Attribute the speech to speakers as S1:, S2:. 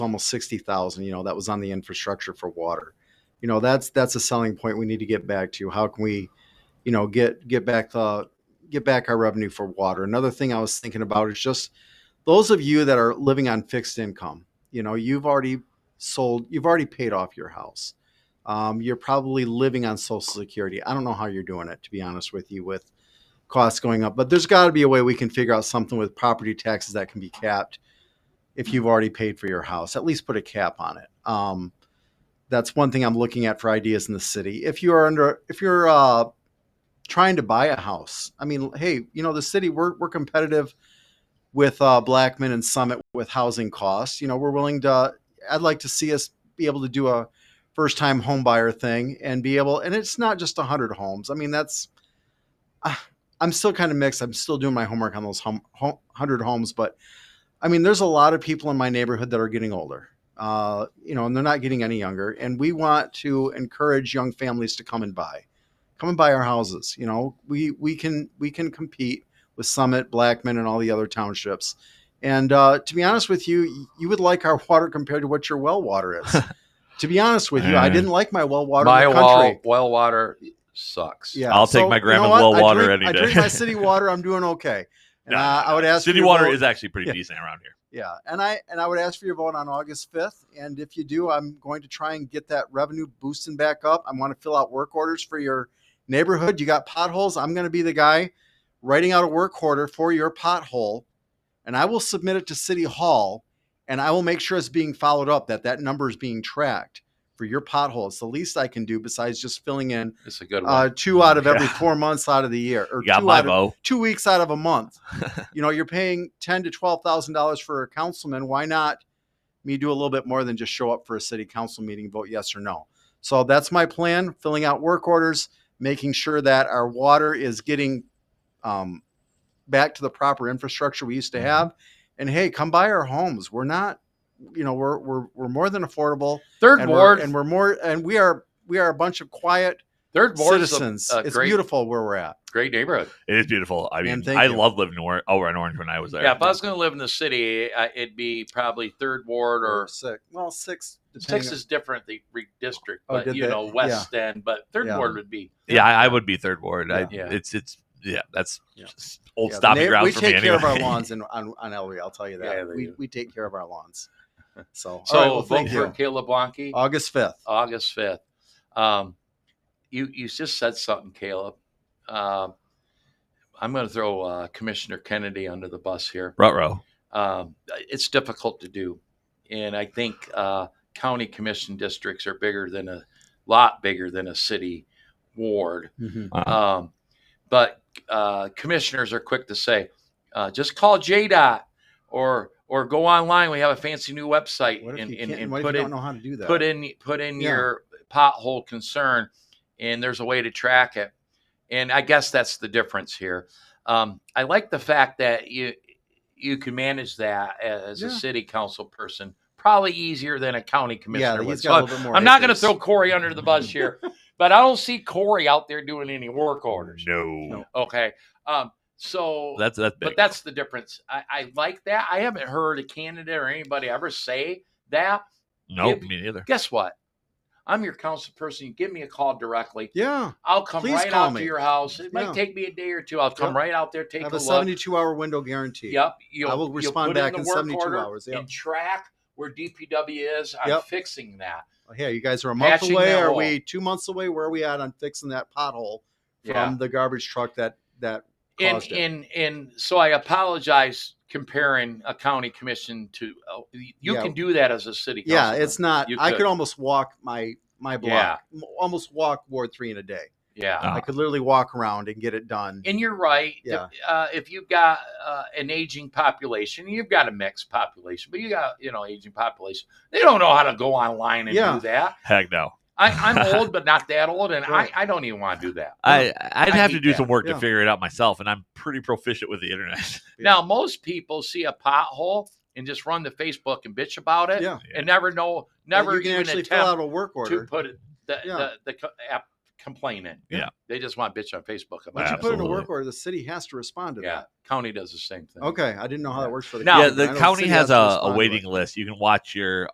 S1: almost 60,000, you know, that was on the infrastructure for water. You know, that's that's a selling point we need to get back to. How can we, you know, get get back the get back our revenue for water? Another thing I was thinking about is just those of you that are living on fixed income, you know, you've already sold, you've already paid off your house. Um, you're probably living on Social Security. I don't know how you're doing it, to be honest with you, with costs going up. But there's got to be a way we can figure out something with property taxes that can be capped if you've already paid for your house. At least put a cap on it. Um, that's one thing I'm looking at for ideas in the city. If you are under, if you're uh, trying to buy a house, I mean, hey, you know, the city we're we're competitive with uh, Blackman and Summit with housing costs. You know, we're willing to. I'd like to see us be able to do a first time home buyer thing and be able. And it's not just hundred homes. I mean, that's. Uh, I'm still kind of mixed. I'm still doing my homework on those home, home, hundred homes, but I mean, there's a lot of people in my neighborhood that are getting older. Uh, you know, and they're not getting any younger. And we want to encourage young families to come and buy, come and buy our houses. You know, we we can we can compete with Summit, Blackman, and all the other townships. And uh, to be honest with you, you would like our water compared to what your well water is. to be honest with you, I didn't like my well water.
S2: My
S1: in the country.
S2: wall, well water sucks.
S1: Yeah,
S3: I'll take my grandma's
S1: what?
S3: well
S1: I
S3: water
S1: drink-
S3: any
S1: I drink
S3: day.
S1: my city water. I'm doing okay. And
S3: No,
S1: I, I would ask for
S3: City
S1: your
S3: water
S1: vote-
S3: is actually pretty
S1: Yeah.
S3: decent around here.
S1: yeah, and I and I would ask for your vote on August 5th. And if you do, I'm going to try and get that revenue boosting back up. I want to fill out work orders for your neighborhood. You got potholes. I'm going to be the guy writing out a work order for your pothole, and I will submit it to City Hall, and I will make sure it's being followed up. That that number is being tracked for your pothole. It's the least I can do besides just filling in
S2: It's a good one.
S1: uh, two out of every
S3: Yeah.
S1: four months out of the year, or
S3: You got
S1: two
S3: my
S1: out of
S3: vote.
S1: two weeks out of a month. you know, you're paying ten to twelve thousand dollars for a councilman. Why not me do a little bit more than just show up for a city council meeting, vote yes or no? So that's my plan: filling out work orders, making sure that our water is getting um, back to the proper infrastructure we used to
S3: Mhm.
S1: have. And hey, come buy our homes. We're not, you know, we're we're we're more than affordable,
S2: 3rd
S1: and we're,
S2: ward,
S1: and we're more, and we are we are a bunch of quiet
S2: third ward is a,
S1: citizens.
S2: a
S1: it's
S2: great,
S1: beautiful where we're at.
S2: great neighborhood.
S3: It is beautiful. I
S1: Man,
S3: mean,
S1: thank
S3: I
S1: you.
S3: love living in Orange, over in Orange when I was there.
S2: Yeah, if I was going to live in the city, I, it'd be probably third ward or
S1: six. Well, six. depending
S2: six
S1: on-
S2: is different. The re- district,
S1: Oh,
S2: but
S1: did
S2: you
S1: they?
S2: know, west end. But third
S1: Yeah.
S2: ward would be
S3: yeah, I, I would be third ward. I,
S2: Yeah.
S3: It's it's yeah, that's
S1: Yeah.
S3: just old
S1: yeah, the
S3: stopping
S1: neigh-
S3: ground
S1: We
S3: for
S1: take
S3: me
S1: care
S3: anyway.
S1: of our lawns in, on on Ellery. I'll tell you that.
S2: Yeah, they
S1: we
S2: do.
S1: we take care of our lawns. So,
S2: so.
S1: all right, well,
S2: vote
S1: thank
S2: for Uh,
S1: you.
S2: Caleb Blanke,
S1: August fifth.
S2: August fifth. Um, you you just said something, Caleb. Um, I'm going to throw uh, Commissioner Kennedy under the bus here.
S3: Rutrow.
S2: um, it's difficult to do. And I think uh, county commission districts are bigger than a lot bigger than a city ward.
S1: Mm-hmm.
S3: Wow.
S2: Um, but uh, commissioners are quick to say, uh, just call JDOT or or go online. We have a fancy new website
S1: What if
S2: and,
S1: you
S2: and,
S1: can't?
S2: and
S1: What if you
S2: put
S1: don't
S2: in
S1: know how to do that?
S2: put in put in
S1: Yeah.
S2: your pothole concern, and there's a way to track it. And I guess that's the difference here. Um, I like the fact that you you can manage that as a
S1: Yeah.
S2: city council person, probably easier than a county
S1: Yeah,
S2: commissioner. would.
S1: he's
S2: So
S1: got a
S2: I'm-
S1: little bit more.
S2: I'm not going to
S1: acres.
S2: throw Corey under the bus here, but I don't see Corey out there doing any work orders.
S3: No,
S2: Okay, um, so
S3: that's that's big.
S2: but that's the difference. I, I like that. I haven't heard a candidate or anybody ever say that
S3: no,
S2: it-
S3: me neither.
S2: guess what? I'm your council person. You give me a call directly.
S1: Yeah,
S2: I'll come
S1: Please
S2: right
S1: call
S2: out
S1: me.
S2: to your house. It might
S1: Yeah.
S2: take me a day or two. I'll come
S1: Yep.
S2: right out there, take
S1: have
S2: a,
S1: a
S2: look.
S1: seventy-two hour window guarantee.
S2: Yep. You'll,
S1: will
S2: you'll
S1: respond
S2: put
S1: back
S2: the
S1: in
S2: work
S1: 72
S2: order
S1: hours, yep.
S2: And track where DPW is. I'm
S1: Yep.
S2: fixing that.
S1: Hey, you guys are a month
S2: Patching
S1: away.
S2: that
S1: Are
S2: hole.
S1: we two months away? Where are we at on fixing that pothole
S2: Yeah.
S1: from the garbage truck that that
S2: And,
S1: caused it?
S2: and and so I apologize comparing a county commission to oh, you
S1: Yeah.
S2: can do that as a city.
S1: Yeah,
S2: councilman.
S1: it's not.
S2: You
S1: I
S2: could.
S1: could almost walk my my block, m- almost walk Ward Three in a day.
S2: yeah.
S3: Uh,
S1: I could literally walk around and get it done.
S2: Ah. and you're right. if-
S1: Yeah.
S2: Uh, if you've got uh, an aging population, you've got a mixed population, but you got you know aging population. They don't know how to go online and
S1: Yeah.
S2: do that.
S3: Heck no.
S2: I, I'm old, but not that old, and
S1: Right.
S2: I, I don't even want to do that.
S3: I I'd
S2: I
S3: have to
S2: hate
S3: do
S2: that.
S3: some work
S1: Yeah.
S3: to figure it out myself, and I'm pretty proficient with the internet.
S1: Yeah.
S2: Now most people see a pothole and just run to Facebook and bitch about it,
S1: yeah,
S2: and never know,
S1: But
S2: never
S1: you can
S2: even
S1: actually
S2: attempt
S1: fill out a work order.
S2: to put it the
S1: Yeah.
S2: the, the co- app complaining.
S3: Yeah.
S2: they just want to bitch on Facebook about
S1: Once
S2: it.
S1: you put in a
S3: Absolutely.
S1: work order, the city has to respond to
S2: yeah, county does the same thing.
S1: that. Okay, I didn't know how
S2: Yeah.
S1: that works for the
S2: Now-
S3: yeah,
S1: county, but I
S3: the
S1: know
S3: county
S1: city
S3: has
S1: to
S3: a,
S1: respond
S3: a
S1: to
S3: waiting
S1: it.
S3: list. You can watch your